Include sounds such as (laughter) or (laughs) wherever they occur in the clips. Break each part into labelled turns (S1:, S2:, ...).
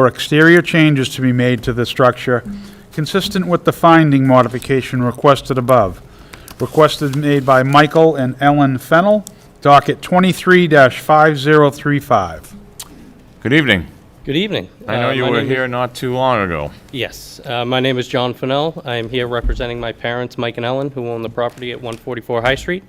S1: or exterior changes to be made to the structure consistent with the finding modification requested above. Requested made by Michael and Ellen Fennel, docket 23-5035.
S2: Good evening.
S3: Good evening.
S2: I know
S3: Uh,
S2: you
S3: my
S2: were
S3: name is-
S2: here not too long ago.
S3: Yes. Uh, My name is John Fennell. I am here representing my parents, Mike and Ellen, who own the property at 144 High Street.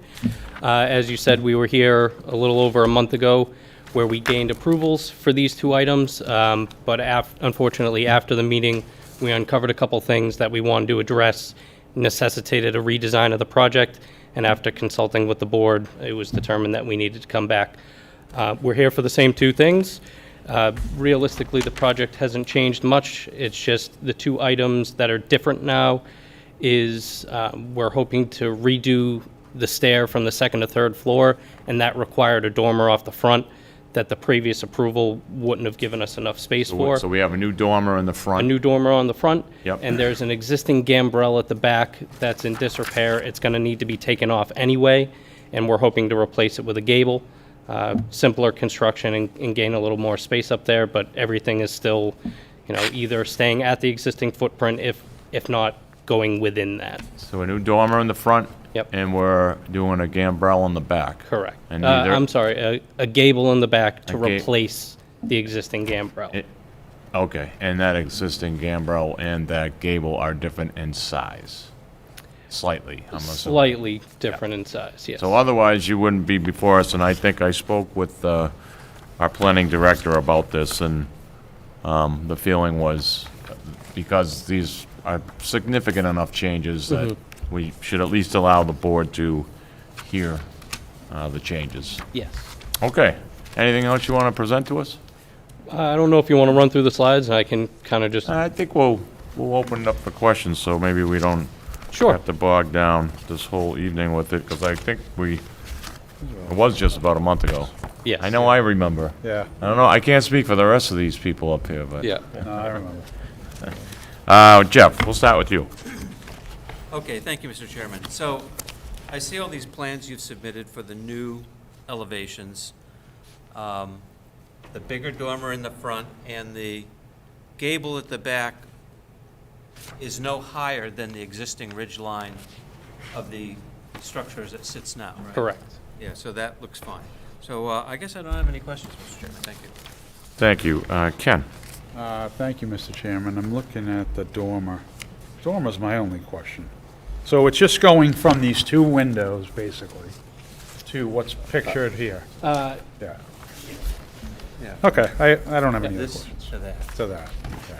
S3: Uh, As you said, we were here a little over a month ago where we gained approvals for these two items, um, but af- unfortunately, after the meeting, we uncovered a couple things that we wanted to address necessitated a redesign of the project, and after consulting with the board, it was determined that we needed to come back. Uh, We're here for the same two things. Uh, Realistically, the project hasn't changed much. It's just the two items that are different now is uh, we're hoping to redo the stair from the second to third floor, and that required a dormer off the front that the previous approval wouldn't have given us enough space for
S2: So we have a new dormer in the
S3: a
S2: front.
S3: new dormer on the front.
S2: Yep.
S3: And there's an existing gambrel at the back that's in disrepair. It's going to need to be taken off anyway, and we're hoping to replace it with a gable. Uh, Simpler construction and- and gain a little more space up there, but everything is still, you know, either staying at the existing footprint, if, if not going within that.
S2: So a new dormer in the front.
S3: Yep.
S2: And we're doing a gambrel in the back.
S3: Correct.
S2: And
S3: Uh,
S2: either-
S3: I'm sorry, a- a gable in the back to
S2: A ga-
S3: replace the existing gambrel.
S2: It- Okay, and that existing gambrel and that gable are different in size? Slightly, I'm assuming.
S3: Slightly different in size, yes.
S2: So otherwise, you wouldn't be before us, and I think I spoke with uh, our planning director about this, and um, the feeling was, uh, because these are significant enough changes, that we should at least allow the board to hear uh, the changes.
S3: Yes.
S2: Okay, anything else you want to present to us?
S3: I don't know if you want to run through the slides, and I can kind of just
S2: Uh, I think we'll, we'll open it up for questions, so maybe we don't
S3: Sure.
S2: have to bog down this whole evening with it, because I think we, it was just about a month ago.
S3: Yes.
S2: I know I remember.
S1: Yeah,
S2: I don't know, I can't speak for the rest of these people up here, but.
S3: Yeah.
S1: no, I remember.
S2: Uh, Jeff, we'll start with you.
S4: Okay, thank you, Mr. Chairman. So I see all these plans you've submitted for the new elevations. Um, The bigger dormer in the front and the gable at the back is no higher than the existing ridge line of the structure as it sits now, right?
S3: Correct.
S4: Yeah, so that looks fine. So uh, I guess I don't have any questions, Mr. Chairman. Thank you.
S2: Thank you. Uh, Ken?
S1: Uh, Thank you, Mr. Chairman. I'm looking at the dormer. Dormer's my only question. So it's just going from these two windows, basically, to what's pictured here?
S3: Uh,
S1: Yeah.
S4: Yeah.
S1: Okay, I I don't have any other
S4: This
S1: questions
S4: to that.
S1: to that. yeah.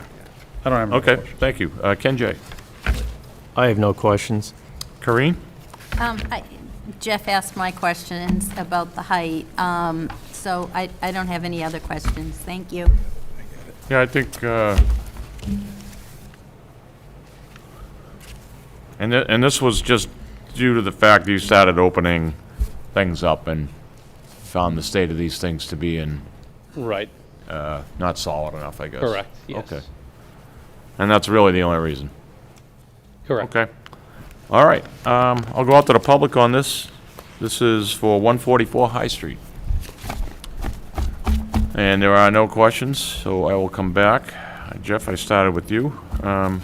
S1: I don't have any
S2: Okay,
S1: questions.
S2: thank you. Uh, Ken J.
S5: I have no questions.
S2: Corinne?
S6: Um, I- Jeff asked my questions about the height, um, so I I don't have any other questions. Thank you.
S2: Yeah, I think, uh, and, thi- and this was just due to the fact that you started opening things up and found the state of these things to be in,
S3: Right.
S2: uh, not solid enough, I guess.
S3: Correct. Yes.
S2: Okay. And that's really the only reason.
S3: Correct.
S2: Okay. All right, um, I'll go out to the public on this. This is for 144 High Street. And there are no questions, so I will come back. Uh, Jeff, I started with you. Um,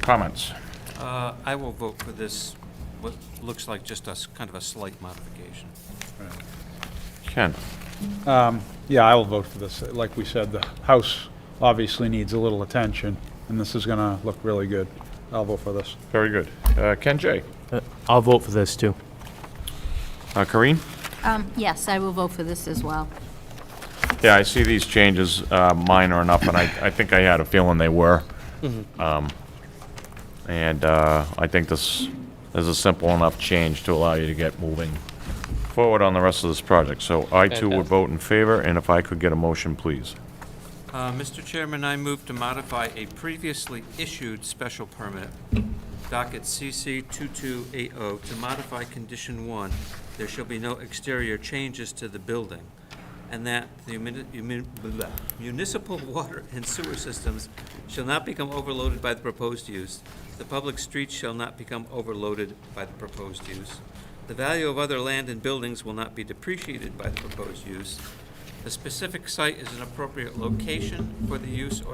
S2: Comments?
S4: Uh, I will vote for this, what looks like just a, s- kind of a slight modification.
S2: Ken?
S1: Yeah, I will vote for this. Like we said, the house obviously needs a little attention, and this is going to look really good. I'll vote for this.
S2: Very good. Uh, Ken J?
S5: Uh, I'll vote for this, too.
S2: Uh, Corinne?
S6: Um, Yes, I will vote for this as well.
S2: Yeah, I see these changes uh, minor enough, and I, I think I had a feeling they were. Um, And uh, I think this is a simple enough change to allow you to get moving forward on the rest of this project. So I too would
S3: Fantastic.
S2: vote in favor, and if I could get a motion, please.
S4: Uh, Mr. Chairman, I move to modify a previously issued special permit, docket CC 2280, oh, to modify condition one, there shall be no exterior changes to the building, and that the muni- muni- blah, municipal (laughs) water and sewer systems shall not become overloaded by the proposed use, the public streets shall not become overloaded by the proposed use, the value of other land and buildings will not be depreciated by the proposed use, The specific site is an appropriate location for the use or